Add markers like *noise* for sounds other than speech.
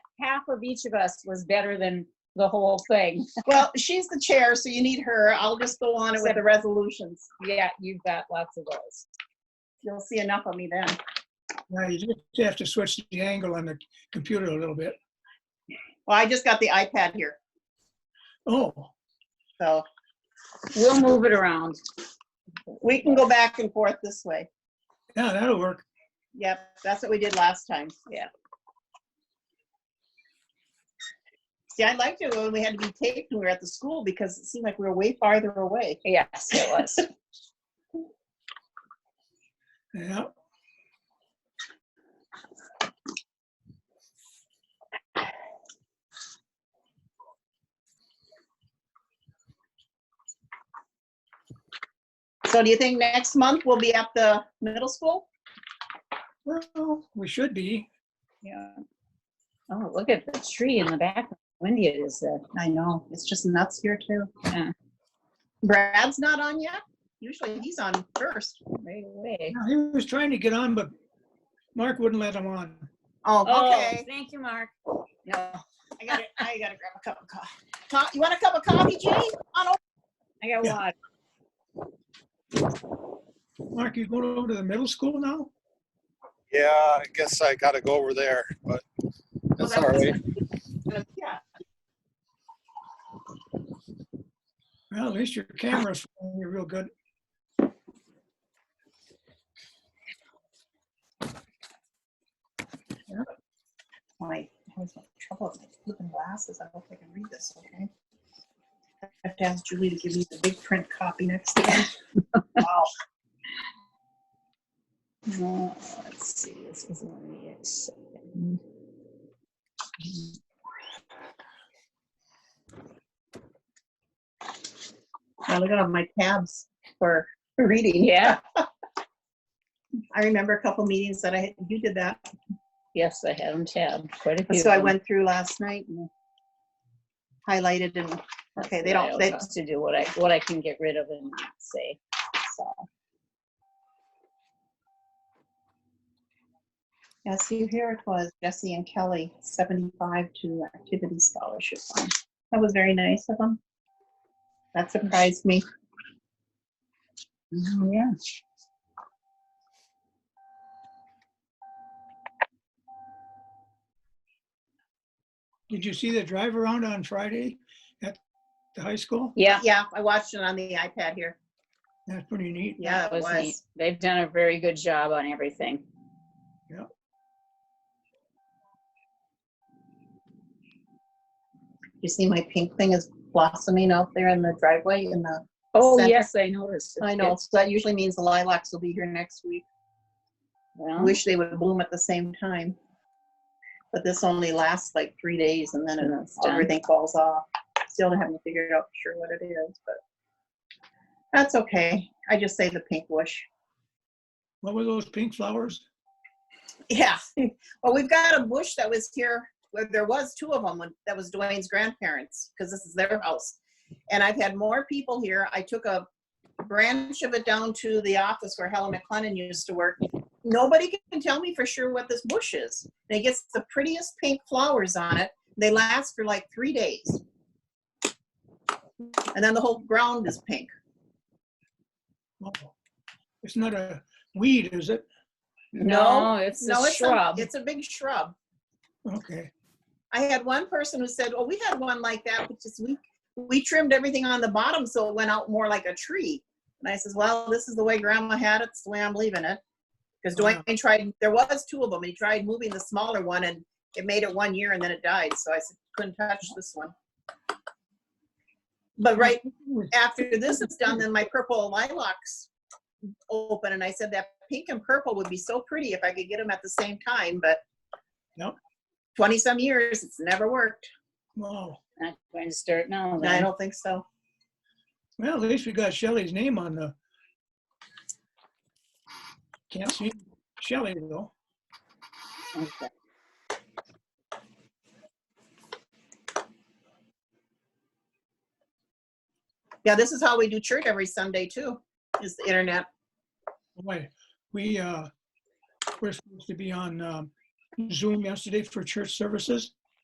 half of each of us was better than the whole thing. Well, she's the chair, so you need her. I'll just go on with the resolutions. Yeah, you've got lots of those. You'll see enough of me then. Now, you just have to switch the angle on the computer a little bit. Well, I just got the iPad here, Oh, so We'll move it around. we can go back and forth this way. yeah, that'll work. Yep, that's what we did last time. Yeah. See, I liked it when we had to be taped when we were at the school because it seemed like we were way farther away. Yes, it was. Yeah. So do you think next month we'll be at the middle school? Well, we should be. Yeah. Oh, look at the tree in the back. Windy it is uh, there. I know, it's just nuts here too. Yeah. Brad's not on yet? Usually he's on first. Right away. Now, He was trying to get on, but Mark wouldn't let him on. Oh, Oh, okay. thank you, Mark. No, I gotta, I gotta grab a cup of coffee. Co- You want a cup of coffee, Jane? On over. I got Yeah. water. Mark, you going over to the middle school now? Yeah, I guess I gotta go over there, but that's all right. Yeah. Well, at least your camera's following you real good. My, I was having trouble with my flipping glasses. I hope I can read this, okay? I have to ask Julie to give me the big print copy next time. Wow. No, let's see, this is only a second. I look at all my tabs for reading. Yeah, I remember a couple meetings that I, you did that. yes, I had them tabbed, quite a few. So I of 'em. went through last night and highlighted and, okay, That's they don't, what I they, always have To do what I, what I can get rid of and not say, so. yeah, see, here it was, Jesse and Kelly, seventy-five to activity scholarship fund. That was very nice of them. That surprised me. Mm-hmm, Yeah. Did you see the drive around on Friday at the high school? Yeah, Yeah, I watched it on the iPad here. That's pretty neat. Yeah, it was neat. was. They've done a very good job on everything. You see my pink thing is blossoming out there in the driveway in the, Oh, Center. yes, I noticed. I know, so that usually means the lilacs will be here next week. I Well, Wish they would bloom at the same time. But this only lasts like three days and then And it- it's done. everything falls off. Still haven't figured out for sure what it is, but that's okay. I just say the pink bush. What were those pink flowers? Yeah. *laughs* Well, we've got a bush that was here, where there was two of them, when- that was Dwayne's grandparents, because this is their house. And I've had more people here. I took a branch of it down to the office where Helen McLennan used to work. Nobody can tell me for sure what this bush is. And it gets the prettiest pink flowers on it. They last for like three days. And then the whole ground is pink. Oh, It's not a weed, is it? no, it's No, a it's a, shrub. it's a big shrub. Okay. I had one person who said, "Well, we had one like that, which is we we trimmed everything on the bottom so it went out more like a tree." And I says, "Well, this is the way Grandma had it. It's the way I'm leaving it." Because Wow. Dwayne tried. There was two of them. He tried moving the smaller one, and it made it one year, and then it died. So I said, "Couldn't touch this one." But right after this is done, then my purple lilacs open, and I said that pink and purple would be so pretty if I could get them at the same time, but Nope. twenty some years, it's never worked. Wow. Not going to start now. I then. don't think so. Well, at least we got Shelley's name on the. Can't see Shelley though. Okay. Yeah, this is how we do church every Sunday too, is the internet. Wait, we, uh, we're supposed to be on um, Zoom yesterday for church services.